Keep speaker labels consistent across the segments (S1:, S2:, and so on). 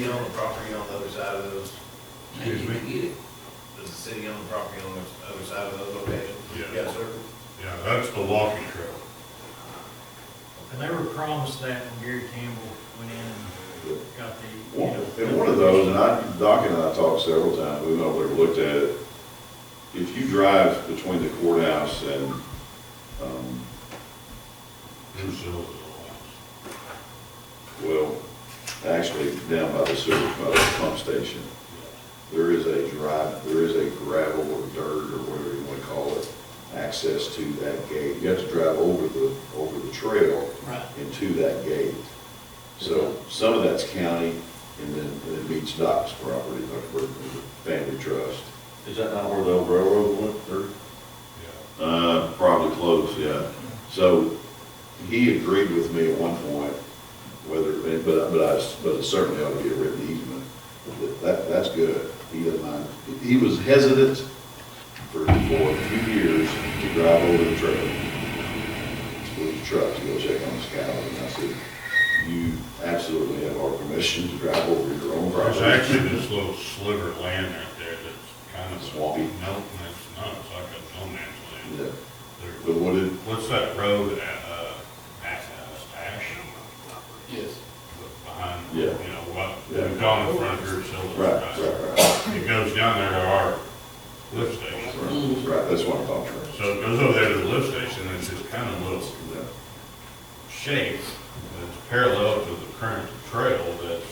S1: city own the property on the other side of those,
S2: Excuse me?
S3: Get it.
S1: does the city own the property on the other side of those locations?
S2: Yeah.
S1: Yes, sir.
S2: Yeah, that's the walking trail.
S4: And they were promised that when Gary Campbell went in and got the, you know.
S5: And one of those, and I, Doc and I talked several times, we went over there, and looked at it. If you drive between the courthouse and, um,
S2: Who's the other one?
S5: well, actually down by the sewer, by the pump station, there is a drive, there is a gravel or dirt or whatever you wanna call it, access to that gate. You have to drive over the, over the trail
S4: Right.
S5: into that gate. So some of that's county and then, and it meets Doc's property, like the family trust.
S6: Is that not where the old railroad went through?
S2: Yeah,
S5: Uh, probably close, yeah. So he agreed with me at one point, whether, but, but I, but it certainly ought to be a written easement. That- That, that's good. He doesn't mind. He was hesitant for, for a few years to drive over the trail. With his truck to go check on his cow. And I said, you absolutely have our permission to drive over your own
S2: yeah. There's
S5: property.
S2: actually this little sliver of land out there that's kind of.
S5: Swampy.
S2: No, it's not, it's like a no man's land.
S5: Yeah.
S2: There-
S5: But what did,
S2: What's that road at, uh, at, uh, Ash?
S3: Yes.
S2: Behind, you
S5: Yeah.
S2: know, what,
S5: Yeah.
S2: we've gone in front of your facility.
S5: right, right, right,
S2: It goes down there to our lift station.
S5: right, right, that's what I'm talking about.
S2: So it goes over there to the lift station, and it's this kind of little
S5: Yeah.
S2: shape that's parallel to the current trail that's.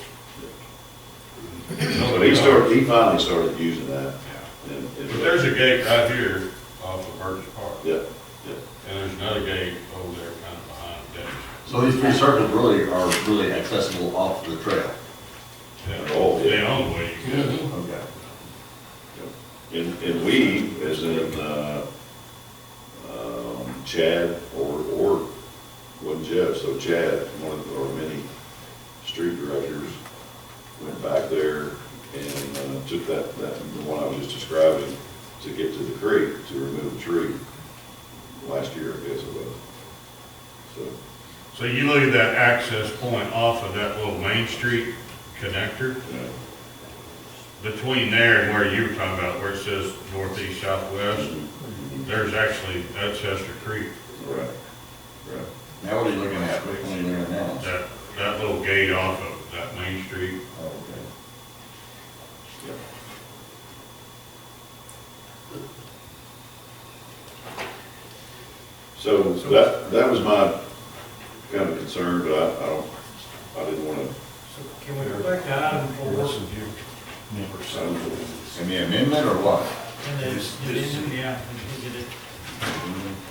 S5: But he started, he finally started using that.
S2: Yeah.
S5: and- and-
S2: But there's a gate right here off of Burgess Park, and
S5: Yeah, yeah.
S2: there's another gate over there kind of behind that.
S6: So these three circles really are really accessible off the trail.
S2: that.
S5: Oh, yeah.
S2: They own the way you go.
S6: Okay.
S5: And, and we, as in, uh, um, Chad or, or, wasn't Jeff, so Chad, one of our many street directors, went back there and uh, took that, that, the one I was just describing, to get to the creek, to remove a tree, last year, I guess it was. So,
S2: So you look at that access point off of that little Main Street connector,
S5: yeah.
S2: between there and where you were talking about, where it says northeast, southwest, there's actually, that's Chester Creek.
S5: Right, right.
S6: Now what are you looking at? Which one are you looking at now?
S2: That, that little gate off of that Main Street,
S6: Oh, okay.
S5: So that, that was my kind of concern, but I, I don't, I didn't want to,
S4: So can we go back to item four?
S6: In the amendment or what?
S4: And then, addendum? yeah, we did it.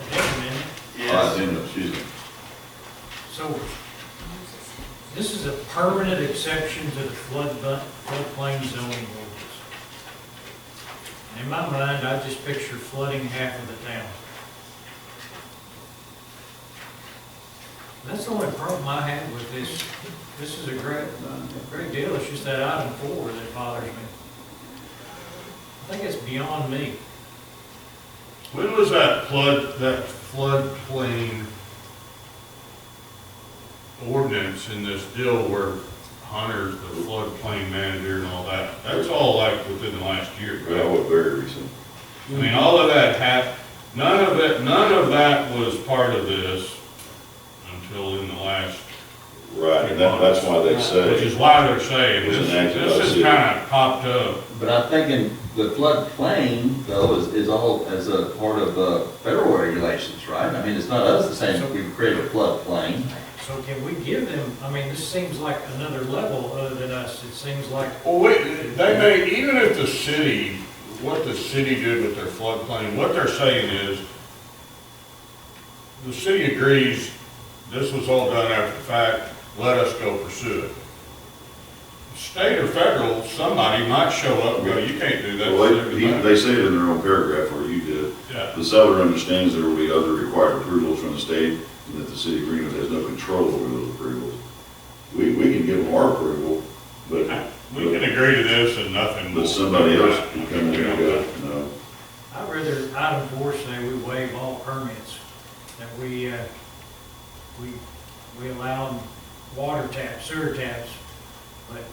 S4: Addendum, isn't it?
S6: Yes. excuse me.
S4: So this is a permanent exception to the flood, floodplain zoning ordinance. And In my mind, I just picture flooding half of the town. That's the only problem I have with this. This is a great, great deal. It's just that item four that bothers me. I think it's beyond me.
S2: When was that flood, that floodplain ordinance in this deal where Hunter's the floodplain manager and all that? That's all like within the last year,
S5: but that
S2: right?
S5: was very recent.
S2: I mean, all of that hap, none of it, none of that was part of this until in the last,
S5: Right, and that, that's why they
S2: which
S5: say,
S2: is why they're saying
S5: It was
S2: this,
S5: enacted by
S2: this
S5: city.
S2: has kind of popped up.
S6: But I'm thinking the floodplain though is, is all as a part of the federal regulations, right? I mean, it's not us saying we create a floodplain.
S4: So can we give them, I mean, this seems like another level other than us. It seems like
S2: Well, wait, they may, even if the city, what the city did with their floodplain, what they're saying is, the city agrees, this was all done after the fact, let us go pursue it. State or federal, somebody might show up and go, you can't do that.
S5: well, they, he- they say it in their own paragraph, or you did.
S2: Yeah,
S5: The seller understands there will be other required approvals from the state, and that the city of Greenwood has no control over those approvals. We, we can give them our approval, but,
S2: we can agree to this and nothing.
S5: but
S2: will-
S5: somebody else can come in
S2: We
S5: and
S2: don't
S5: go,
S2: know.
S5: no.
S4: I'd rather item four say we waive all permits, that we, uh, we, we allow water taps, sewer taps, but